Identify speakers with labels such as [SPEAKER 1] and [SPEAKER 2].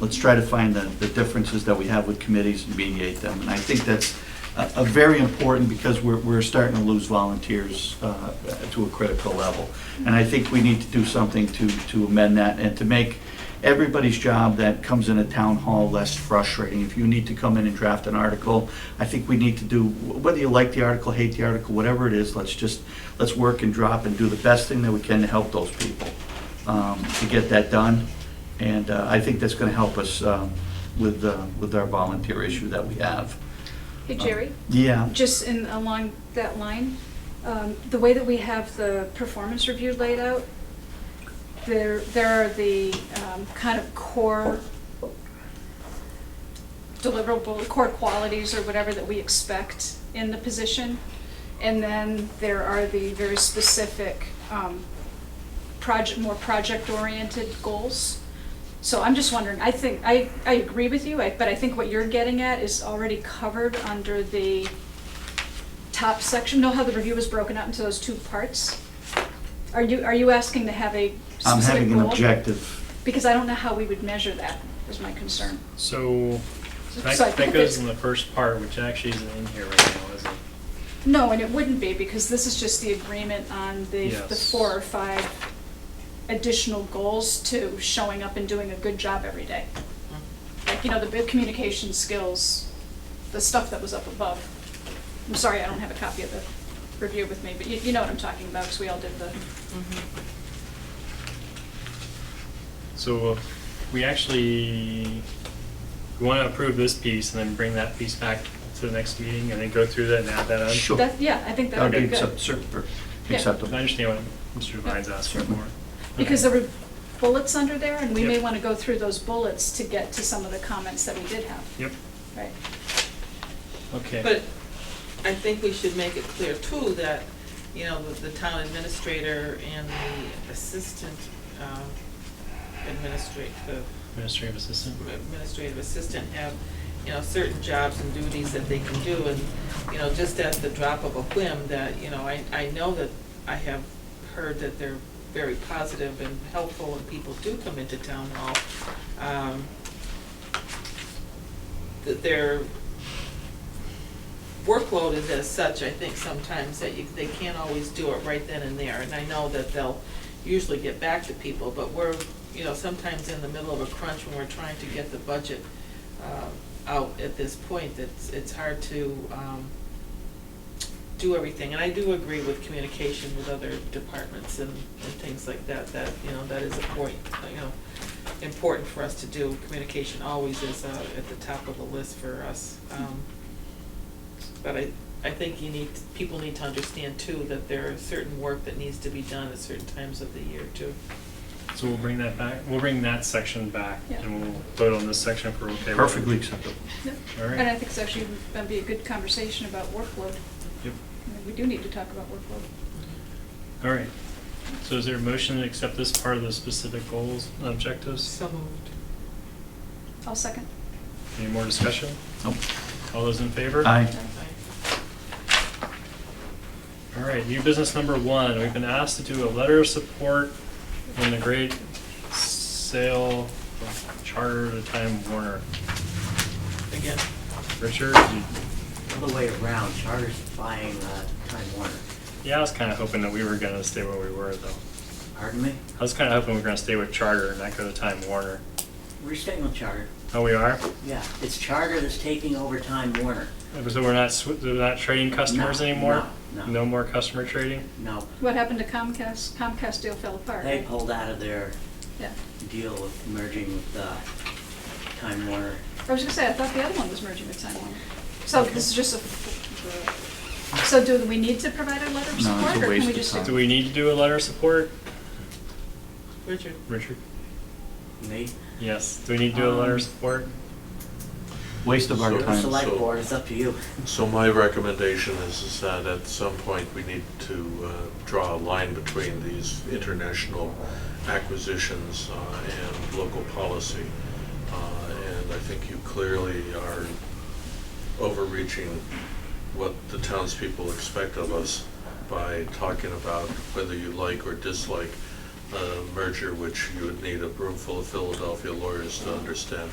[SPEAKER 1] let's try to find the, the differences that we have with committees and mediate them. And I think that's a, a very important because we're, we're starting to lose volunteers uh, to a critical level. And I think we need to do something to, to amend that and to make everybody's job that comes in a town hall less frustrating. If you need to come in and draft an article, I think we need to do, whether you like the article, hate the article, whatever it is, let's just, let's work and drop and do the best thing that we can to help those people um, to get that done. And uh, I think that's going to help us um, with, uh, with our volunteer issue that we have. Uh,
[SPEAKER 2] Hey, Jerry,
[SPEAKER 1] Yeah.
[SPEAKER 2] just in, along that line, um, the way that we have the performance review laid out, there, there are the um, kind of core deliverable, core qualities or whatever that we expect in the position. And then there are the very specific, um, project, more project-oriented goals. So I'm just wondering, I think, I, I agree with you, I- but I think what you're getting at is already covered under the top section. Know how the review was broken out into those two parts? Are you, are you asking to have a
[SPEAKER 1] I'm
[SPEAKER 2] specific
[SPEAKER 1] having an
[SPEAKER 2] goal?
[SPEAKER 1] objective.
[SPEAKER 2] Because I don't know how we would measure that, is my concern.
[SPEAKER 3] So, that,
[SPEAKER 2] So I think
[SPEAKER 3] that goes
[SPEAKER 2] it's-
[SPEAKER 3] in the first part, which actually isn't in here right now, is it?
[SPEAKER 2] No, and it wouldn't be, because this is just the agreement on the, the
[SPEAKER 3] Yes.
[SPEAKER 2] four or five additional goals to showing up and doing a good job every day.
[SPEAKER 4] Mm-hmm.
[SPEAKER 2] Like, you know, the big communication skills, the stuff that was up above. I'm sorry, I don't have a copy of the review with me, but you, you know what I'm talking about, because we all did the,
[SPEAKER 3] So, we actually, we want to approve this piece and then bring that piece back to the next meeting and then go through that and add that on?
[SPEAKER 1] Sure.
[SPEAKER 2] that, yeah, I think that
[SPEAKER 1] That
[SPEAKER 2] would
[SPEAKER 1] would be
[SPEAKER 2] be good.
[SPEAKER 1] accept- cer- or
[SPEAKER 2] Yeah.
[SPEAKER 3] I
[SPEAKER 1] acceptable.
[SPEAKER 3] understand what Mr. Devine's asking for.
[SPEAKER 2] Because there
[SPEAKER 3] Okay.
[SPEAKER 2] were bullets under there, and we may
[SPEAKER 3] Yep.
[SPEAKER 2] want to go through those bullets to get to some of the comments that we did have,
[SPEAKER 3] Yep,
[SPEAKER 2] right?
[SPEAKER 3] okay.
[SPEAKER 4] But I think we should make it clear too that, you know, the, the town administrator and the assistant, um, administrate, the
[SPEAKER 3] Administrative assistant?
[SPEAKER 4] administrative assistant have, you know, certain jobs and duties that they can do, and, you know, just at the drop of a whim, that, you know, I, I know that I have heard that they're very positive and helpful, and people do come into town hall. um, That their workload is as such, I think sometimes that you, they can't always do it right then and there, and I know that they'll usually get back to people, but we're, you know, sometimes in the middle of a crunch when we're trying to get the budget um, out at this point, it's, it's hard to um, do everything. And I do agree with communication with other departments and, and things like that, that, you know, that is a point, you know, important for us to do. Communication always is uh, at the top of the list for us. Um, But I, I think you need, people need to understand too, that there are certain work that needs to be done at certain times of the year too.
[SPEAKER 3] So we'll bring that back, we'll bring that section back
[SPEAKER 2] Yeah.
[SPEAKER 3] and we'll vote on this section if we're okay with it.
[SPEAKER 1] Perfectly acceptable.
[SPEAKER 2] Yep.
[SPEAKER 3] All right.
[SPEAKER 2] And I think it's actually gonna be a good conversation about workload.
[SPEAKER 3] Yep,
[SPEAKER 2] I mean, We do need to talk about workload.
[SPEAKER 3] all right. So is there a motion to accept this part of the specific goals and objectives?
[SPEAKER 4] So moved.
[SPEAKER 2] I'll second.
[SPEAKER 3] Any more discussion?
[SPEAKER 1] Nope.
[SPEAKER 3] All those in favor?
[SPEAKER 1] Aye.
[SPEAKER 3] All right, new business number one, we've been asked to do a letter of support in the great sale of charter to Time Warner.
[SPEAKER 4] Again,
[SPEAKER 3] Richard, you-
[SPEAKER 5] All the way around, Charter's buying uh, Time Warner.
[SPEAKER 3] yeah, I was kind of hoping that we were going to stay where we were, though.
[SPEAKER 5] Pardon me?
[SPEAKER 3] I was kind of hoping we were going to stay with Charter and not go to Time Warner.
[SPEAKER 5] We're staying with Charter.
[SPEAKER 3] Oh, we are?
[SPEAKER 5] Yeah, it's Charter that's taking over Time Warner.
[SPEAKER 3] So we're not, sw- we're not trading customers
[SPEAKER 5] No,
[SPEAKER 3] anymore?
[SPEAKER 5] no, no.
[SPEAKER 3] more customer trading?
[SPEAKER 5] No,
[SPEAKER 2] What happened to Comcast? Comcast deal fell apart,
[SPEAKER 5] they
[SPEAKER 2] right?
[SPEAKER 5] pulled out of their
[SPEAKER 2] Yeah.
[SPEAKER 5] deal with merging with uh, Time Warner.
[SPEAKER 2] I was gonna say, I thought the other one was merging with Time Warner. So this is just a, so do we need to provide a letter
[SPEAKER 1] No,
[SPEAKER 2] of
[SPEAKER 1] it's a
[SPEAKER 2] support,
[SPEAKER 1] waste
[SPEAKER 2] or can we
[SPEAKER 1] of
[SPEAKER 2] just
[SPEAKER 1] time.
[SPEAKER 3] Do we need to do a letter of support?
[SPEAKER 4] Richard?
[SPEAKER 3] Richard?
[SPEAKER 5] Me?
[SPEAKER 3] Yes, do we need to do a letter
[SPEAKER 5] Um,
[SPEAKER 3] of support?
[SPEAKER 1] Waste of our
[SPEAKER 5] You're the
[SPEAKER 1] time.
[SPEAKER 5] Select
[SPEAKER 6] so-
[SPEAKER 5] Board, it's up to you.
[SPEAKER 6] So my recommendation is, is that at some point, we need to uh, draw a line between these international acquisitions uh, and local policy. Uh, And I think you clearly are overreaching what the townspeople expect of us by talking about whether you like or dislike uh, merger, which you would need a room full of Philadelphia lawyers to understand.